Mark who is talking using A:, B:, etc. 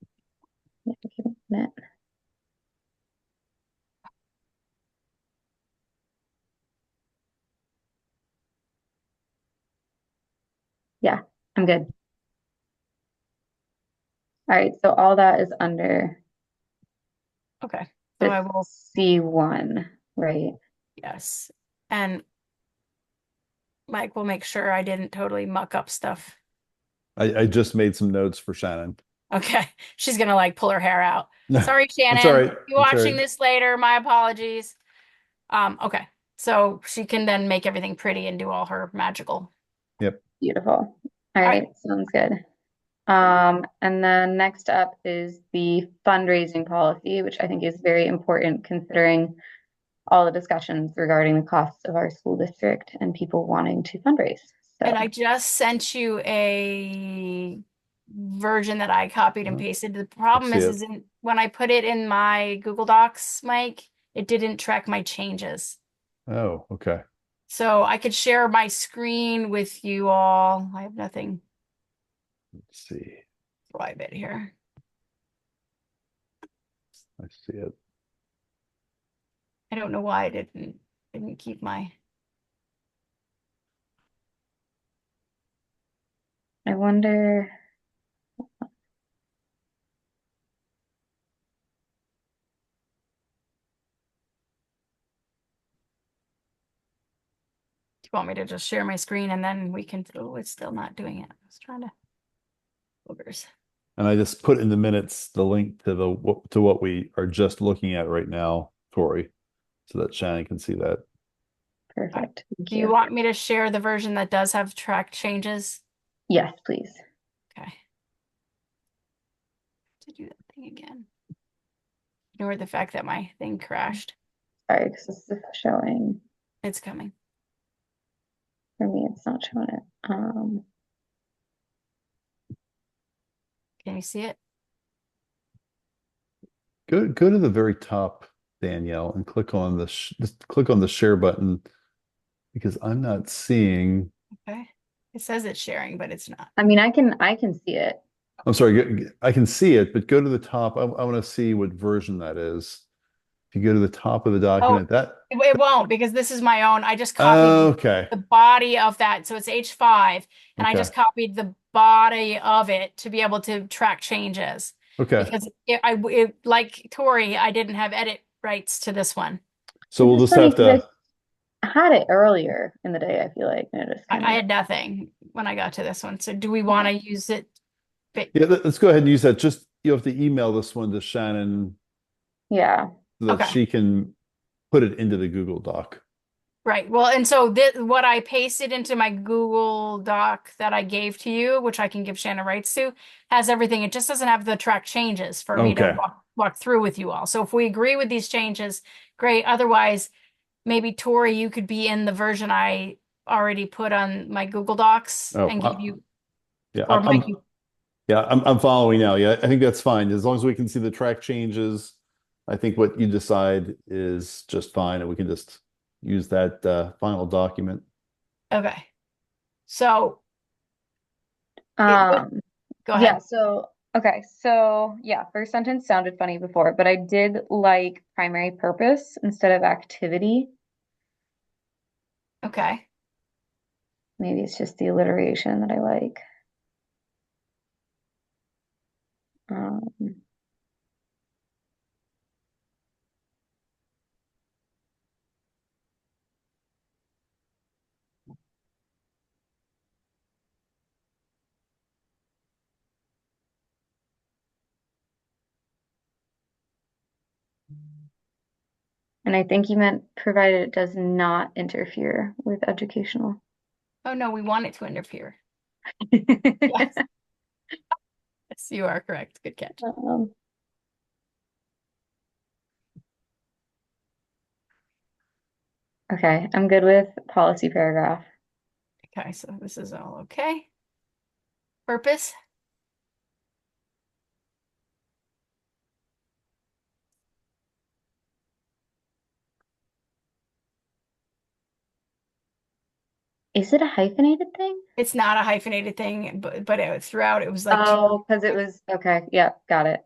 A: Yeah, I'm good. All right, so all that is under
B: Okay, so I will,
A: C1, right?
B: yes, and Mike will make sure I didn't totally muck up stuff.
C: I, I just made some notes for Shannon.
B: Okay, she's gonna like pull her hair out. Sorry, Shannon.
C: all right.
B: If You're
C: It's all
B: watching
C: right.
B: this later, my apologies. Um, okay, so she can then make everything pretty and do all her magical.
A: Beautiful. All
B: right.
A: right, sounds good. Um, and then next up is the fundraising policy, which I think is very important considering all the discussions regarding the costs of our school district and people wanting to fundraise. So,
B: And I just sent you a version that I copied and
C: Mhm.
B: pasted. The problem
C: see
B: is,
C: it.
B: is in, when I put it in my Google Docs, Mike, it didn't track my changes.
C: Oh, okay.
B: So I could share my screen with you all. I have nothing
C: Let's see.
B: private here.
C: I see it.
B: I don't know why I didn't didn't keep my
A: I wonder.
B: do you want me to just share my screen and then we can oh it's still not doing it. I was trying to boogers.
C: And I just put in the minutes the link to the what to what we are just looking at right now, Tori, so that Shannon can see that.
A: Perfect. Thank
B: Uh, Do you
A: you.
B: want me to share the version that does have track changes?
A: Yes, please.
B: Okay. To do that thing again. Ignore the fact that my thing crashed.
A: Sorry, because this is showing.
B: It's coming.
A: For me, it's not showing it. Um,
B: Can you see it?
C: Go go to the very top, Danielle, and click on the sh- just click on the share button because I'm not seeing.
B: Okay. It says it's sharing, but it's not.
A: I mean, I can I can see it.
C: I'm sorry. go- go- I can see it, but go to the top. I, I want to see what version that is. If you go to the top of the document, that
B: It, it won't because this is my own. I just copied
C: okay.
B: the body of that. So it's H5 and I
C: Okay.
B: just copied the body of it to be able to track changes
C: Okay.
B: because it, I w- it, like Tori, I didn't have edit rights to this one.
C: So we'll
A: This is
C: just
A: funny
C: have
A: 'cause I
C: to.
A: had it earlier in the day, I feel like. and it just
B: I,
A: kinda-
B: I had nothing when I got to this one. So do we want to use it? But-
C: Yeah, let- let's go ahead and use that. Just you have to email this one to Shannon
A: yeah.
C: so that
B: Okay.
C: she can put it into the Google Doc.
B: Right. Well, and so this, what I pasted into my Google Doc that I gave to you, which I can give Shannon rights to, has everything. It just doesn't have the track changes for me to
C: Okay.
B: walk, walk through with you all. So if we agree with these changes, great. Otherwise, maybe Tori, you could be in the version I already put on my Google Docs
C: Oh,
B: and
C: I-
B: give you,
C: Yeah,
B: or
C: I'm,
B: Mike,
C: I'm-
B: you-
C: yeah, I'm, I'm following now. Yeah, I think that's fine. As long as we can see the track changes, I think what you decide is just fine, and we can just use that uh, final document.
B: okay. So
A: Um,
B: go ahead.
A: yeah, so okay, so yeah, first sentence sounded funny before, but I did like primary purpose instead of activity.
B: Okay.
A: Maybe it's just the alliteration that I like. Um, and I think you meant provided it does not interfere with educational.
B: Oh, no, we want it to interfere. Yes. Yes, you are correct. Good catch.
A: Um, okay, I'm good with policy paragraph.
B: Okay, so this is all okay. Purpose,
A: Is it a hyphenated thing?
B: it's not a hyphenated thing, but but it, throughout it was like two
A: Oh, because it was okay. Yeah, got it.